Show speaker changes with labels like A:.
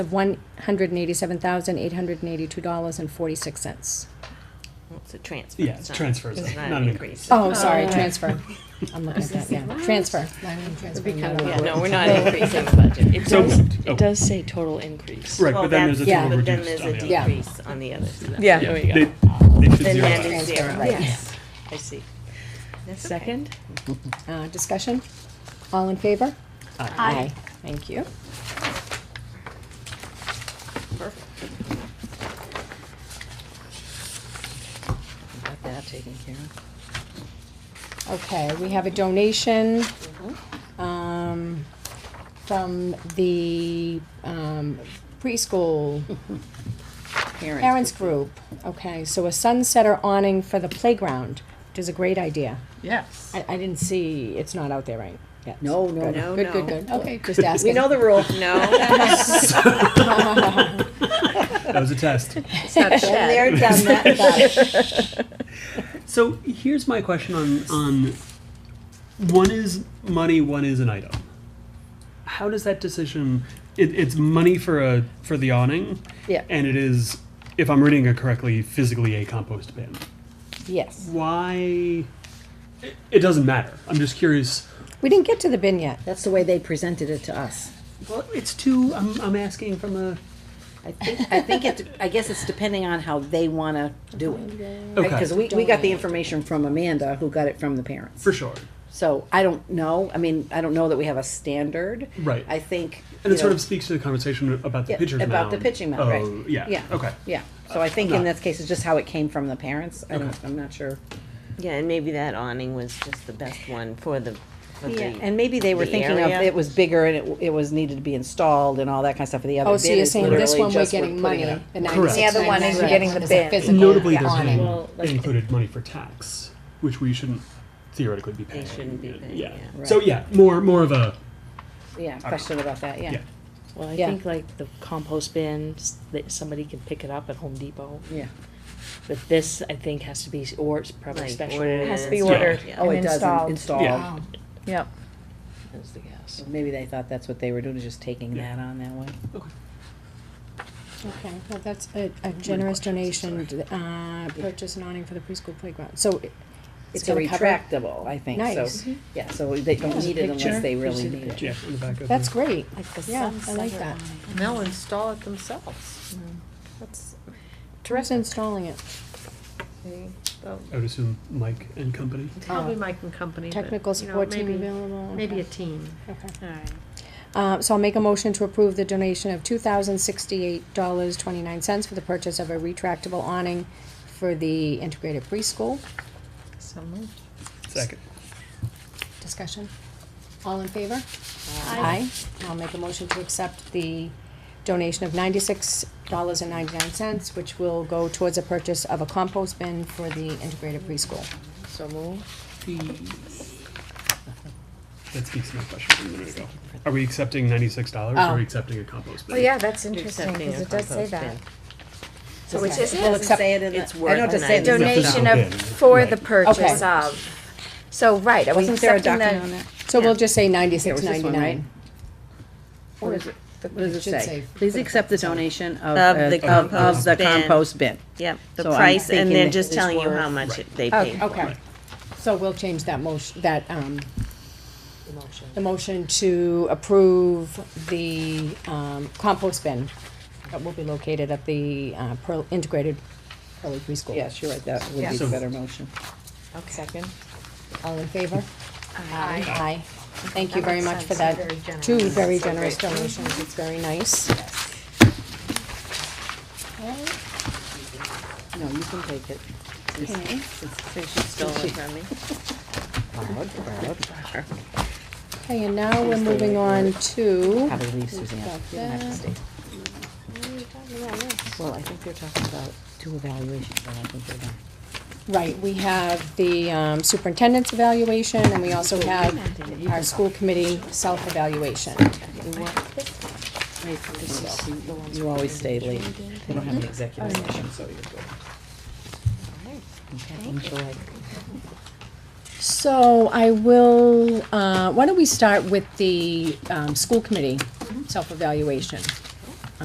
A: of $187,882.46.
B: It's a transfer.
C: Yeah, it's
B: not-
C: transfers,
B: It's
C: though,
B: not an increase.
A: Oh, sorry,
D: Oh.
A: transfer. I'm looking at that, yeah, transfer.
B: Yeah, no, we're not increasing the budget. It
C: So
B: does-
C: moved. Oh,
D: It does say total increase.
C: Right,
B: well,
C: but then
B: that's-
C: there's a
A: yeah,
C: total
B: But then
C: reduced
B: there's
C: on
B: a
C: the other.
B: decrease on the other side.
C: Yeah,
D: Yeah. There you go.
C: They, they should
B: Then
C: zero
B: that
C: out.
B: is
A: Transfer,
B: zero,
A: right.
B: yes.
D: I see.
B: That's okay.
D: Second?
A: Uh, Discussion? All in favor? Aye. Thank you.
B: Perfect.
D: Got that taken care of.
A: Okay, we have a donation um, from the um, preschool parents group. Okay, so a sunsetter awning for the playground, which is a great idea.
E: Yes.
A: I, I didn't see, it's not out there right yet.
E: No, no,
A: Good.
B: no.
A: Good, good,
B: No,
A: good. Okay, just asking.
B: We know the rule, no.
C: That was a test.
B: Been there, done that.
C: So here's my question on on one is money, one is an item. How does that decision? It, it's money for a for the awning,
D: Yeah.
C: and it is, if I'm reading it correctly, physically a compost bin.
A: Yes.
C: Why? It, it doesn't matter. I'm just curious.
A: We didn't get to the bin yet.
E: That's the way they presented it to us.
C: Well, it's too. I'm, I'm asking from a.
E: I think, I think it, I guess it's depending on how they wanna do it.
C: Okay.
E: Because we, we got the information from Amanda, who got it from the parents.
C: for sure.
E: So I don't know, I mean, I don't know that we have a standard.
C: Right.
E: I think.
C: And
E: you
C: it sort
E: know,
C: of speaks to the conversation about the
E: yeah,
C: pitcher's
E: About the
C: mound.
E: pitching mound,
C: Oh,
E: right.
C: yeah.
E: Yeah.
C: Okay.
E: Yeah, so I think in
C: No.
E: this case, it's just how it came from the parents. I don't,
C: Okay.
E: I'm not sure.
B: Yeah, and maybe that awning was just the best one for the, for the.
E: And maybe they were
B: the
E: thinking of,
B: area.
E: it was bigger and it, it was needed to be installed and all that kind of stuff, but the other
A: Oh, so
E: bid
A: you're
E: is
A: saying this
E: literally
A: one we're
E: just we're
A: getting
E: putting it
A: money,
E: up.
A: the
C: Correct. The other
D: one is you're getting the
A: bid.
D: bin.
C: Notably, there's
A: awning.
C: been-
D: Well, like-
C: they included money for tax, which we shouldn't theoretically be paying.
B: shouldn't be paying, yeah.
C: So yeah, more more of a
E: Yeah, question about that, yeah.
C: yeah.
D: Well, I
A: Yeah.
D: think like the compost bins, that somebody can pick it up at Home Depot.
E: Yeah.
D: But this, I think, has to be, or it's probably
B: Like,
D: special.
B: ordered
F: Has to be
B: and
F: ordered
B: installed, yeah.
E: Oh,
F: and
E: it does
F: installed.
E: install.
F: Yep.
D: Is the guess.
E: Maybe they thought that's what they were doing, is just taking that on that way.
A: Okay, well, that's a, a generous donation, to, uh, purchase an awning for the preschool playground, so. it-
E: It's a
A: gonna cover-
E: retractable, I think,
A: Nice.
E: so, yeah, so they don't need it unless they really need it.
C: Yeah, in the back of
A: That's
C: the-
A: great, yeah, I like that. Mm-hmm.
F: And they'll install it themselves. That's
A: Who's
F: terrific.
A: installing it?
F: They- they'll-
C: I would assume Mike and company.
F: Probably Mike and company. but,
A: Technical
F: you know,
A: support team
F: maybe-
A: available.
F: Maybe a
A: Okay.
F: team.
A: Okay.
F: All right.
A: Uh, so I'll make a motion to approve the donation of two thousand sixty-eight dollars twenty-nine cents for the purchase of a retractable awning for the integrated preschool.
F: So moved.
C: Second.
A: Discussion? All in favor? Aye. And I'll make a motion to accept the donation of ninety-six dollars and ninety-nine cents, which will go towards the purchase of a compost bin for the integrated preschool.
D: So moved.
C: That speaks to my question from a minute ago. Are we accepting ninety six dollars or are we accepting a compost bin?
F: Well, Oh, yeah, that's
B: You're
F: interesting,
B: accepting
F: because
B: a
F: it does say
B: compost
F: that.
B: bin.
F: So which
A: Okay.
F: is
A: Well,
F: it?
A: accept-
E: Say it in
B: It's
E: the, I know
B: worth
E: to
B: an
E: say it. in the-
F: Donation
C: Right.
F: of, for the
C: Okay.
F: purchase of. So, right, are we
E: Wasn't there a
F: accepting
E: document on
F: the?
E: that?
A: So
F: Yeah.
A: we'll just say
E: There
A: ninety-six
E: was this one, right?
A: ninety-nine.
F: What is it?
E: What does it
A: It should
E: say?
A: say-
E: Please accept the donation
B: Of
E: of, uh,
B: the
E: of, of the
B: compost bin.
E: compost bin.
B: Yep, the
E: So I'm
B: price, and
E: thinking
B: they're
E: that
B: just
E: it's
B: telling you how
E: worth-
B: much it- they paid.
A: Okay. So we'll change that motion, that, um,
D: The motion.
A: the motion to approve the, um, compost bin that will be located at the, uh, Pearl, integrated early preschool.
E: Yes, you're right, that would be the
C: So-
E: better motion.
D: Second.
A: All in favor?
F: Aye.
A: Aye. Thank you
F: That
A: very
F: makes
A: much for
F: sense.
A: that.
F: Very generous.
A: Two very generous donations. It's very nice.
E: No, you can take it.
A: Okay.
B: Since you stole it from me.
A: Okay, and now we're moving on to,
E: Probably leave Suzanne. You don't have to stay. Well, I think they're talking about two evaluations, and I think they're done.
A: right, we have the um, superintendent's evaluation, and we also have our school committee self-evaluation.
E: You always stay late. They don't have an executive session, so you're good. Okay, enjoy.
A: So I will, uh, why don't we start with the um, school committee self-evaluation?